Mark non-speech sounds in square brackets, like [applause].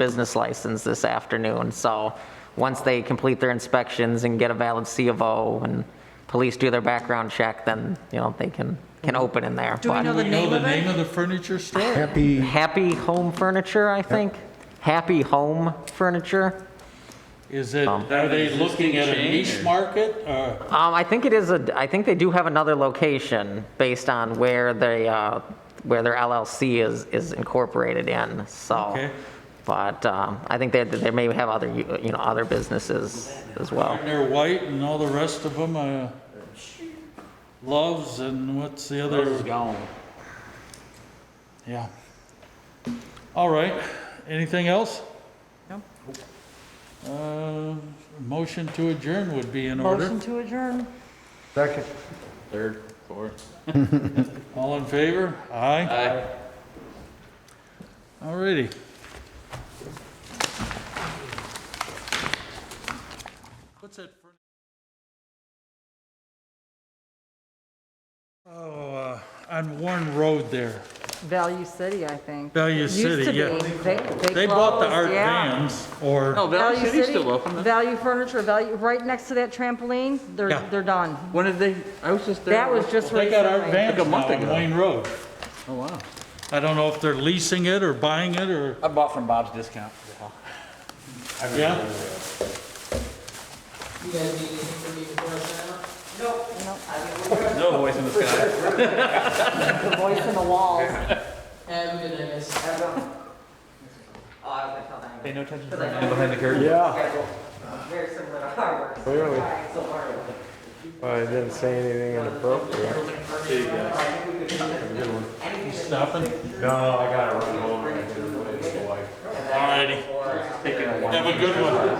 business license this afternoon. So once they complete their inspections and get a valid C of O and police do their background check, then, you know, they can, can open in there. Mm-hmm. Do we But know the You know name the of name it? of the furniture store? Happy, Happy Home Furniture, I think. Happy Home Furniture. Is it, are they looking at a niche market? Uh, or- Um, I think it is a, I think they do have another location based on where they, uh, where their LLC is, is incorporated in, so. Okay. But, um, I think they, they may have other, you know, other businesses as well. And they're white and all the rest of them are Loves and what's the other? Yeah. All right, anything else? No. Uh, Motion to adjourn would be in order. Motion to adjourn. second. Third, fourth. [laughs] All in favor? Aye. Aye. All righty. What's that? fur- Oh, uh, on Warren Road there. Value City, I think. Value Used City, to be. yeah. They, they They bought the closed, art yeah. vans or. No, Valley City's still open. though. Value Furniture, Value, right next to that trampoline, they're, Yeah. they're done. When did they, I was just there. That was just They got art recently. vans Like a now month on ago. Wayne Road. Oh, wow. I don't know if they're leasing it or buying it or, I bought from Bob's Discount. yeah? No voice in the sky. The voice in the walls. Oh, Pay no attention to the man behind the curtain. Very similar to Harvard. Clearly. I didn't say anything inappropriate. Stopping? No, I gotta run home. All righty. Have a good one.